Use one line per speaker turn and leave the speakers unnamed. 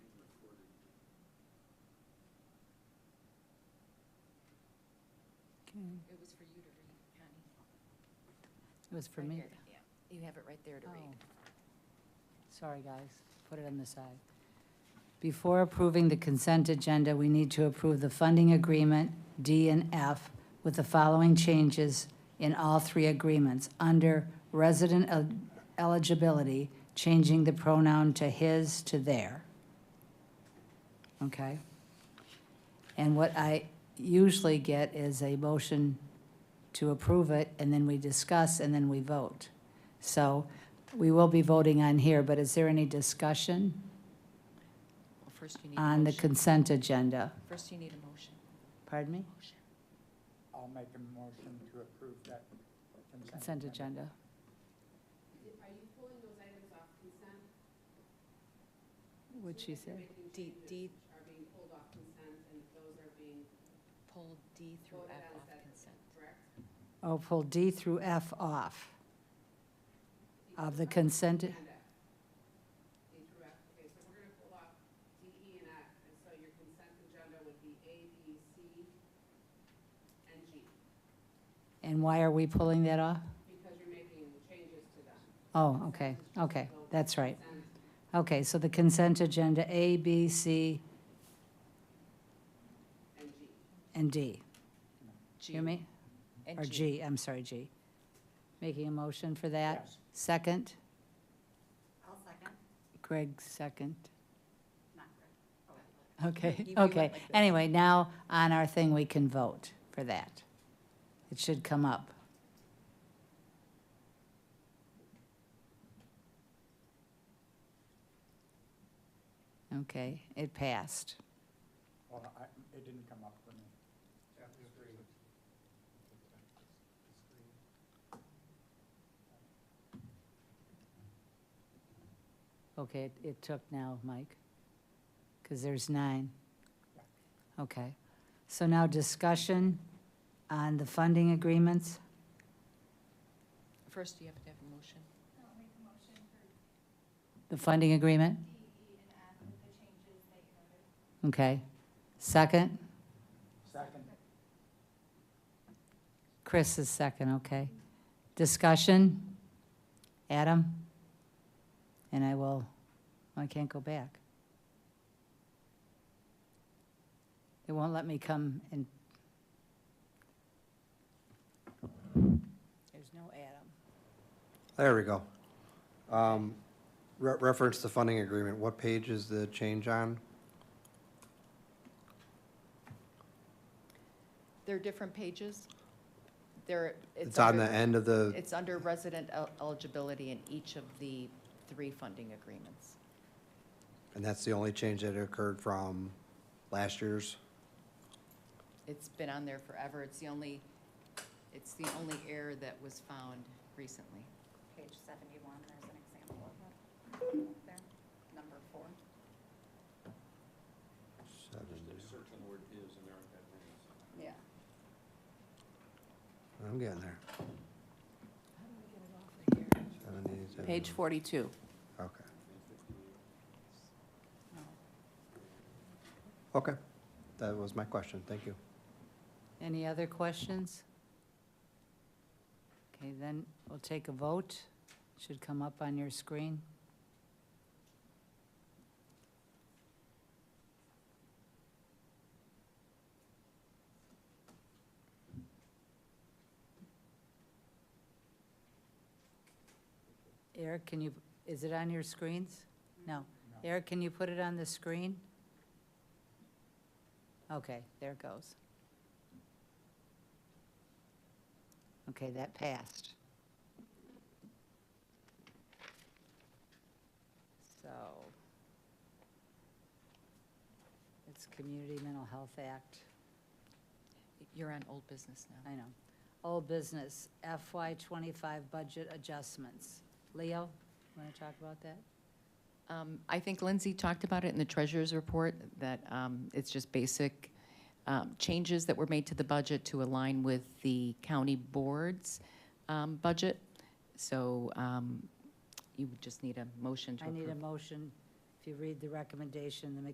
It was for you to read, Connie.
It was for
Right
me.
here. Yeah, you have it right there to read.
Oh. Sorry, guys. Put it on the side. Before approving the consent agenda, we need to approve the funding agreement, D and F, with the following changes in all three agreements. Under resident el- eligibility, changing the pronoun to his to their. Okay? And what I usually get is a motion to approve it, and then we discuss, and then we vote. So we will be voting on here, but is there any discussion
Well, first you need a
on the
motion.
consent agenda?
First you need a motion.
Pardon me?
Motion.
I'll make a motion to approve that consent.
Consent agenda. Are you pulling those items off consent? What'd she say?
D, D. Are being pulled off consent, and those are being. Pulled D through F off consent.
Oh, pull D through F off of the consent.
D through F. Okay, so we're gonna pull off D, E, and F, and so your consent agenda would be A, B, C, and G,
And why are we pulling that off?
because you're making changes to them.
Oh, okay, okay, that's right. Okay, so the consent agenda, A, B, C, and D.
G.
You me?
and
Or
G.
G, I'm sorry, G. Making a motion for that?
Yes.
Second?
I'll second,
Greg, second.
not Greg.
You-
Okay,
you went
okay.
like this.
Anyway, now on our thing, we can vote for that. It should come up. Okay, it passed.
Well, I, it didn't come up for me.
Okay, it- it took now, Mike, because there's nine. Okay, so now discussion on the funding agreements?
First you have to have a motion.
The funding agreement? Okay. Second?
Second,
Chris is second, okay. Discussion? Adam? And I will, I can't go back. It won't let me come and. There's no Adam.
There we go. Um, re- Reference the funding agreement. What page is the change on?
There are different pages. There, it's.
It's on
under-
the end of the,
It's under resident el- eligibility in each of the three funding agreements.
and that's the only change that occurred from last year's?
It's been on there forever. It's the only, it's the only error that was found recently.
Page seventy-one, there's an example of it, there, number four.
Seven.
Yeah.
I'm getting there. Seventy, seventy-
Page forty-two.
Okay. Okay, that was my question. Thank you.
Any other questions? Okay, then we'll take a vote. Should come up on your screen. Eric, can you, is it on your screens? No.
No.
Eric, can you put it on the screen? Okay, there it goes. Okay, that passed. So it's Community Mental Health Act,
You're on old business now.
I know. Old business FY twenty-five budget adjustments. Leo, want to talk about that?
Um, I think Lindsay talked about it in the treasurer's report, that um, it's just basic um, changes that were made to the budget to align with the county board's um, budget. So um, you would just need a motion to
I
approve.
need a motion, if you read the recommendation, the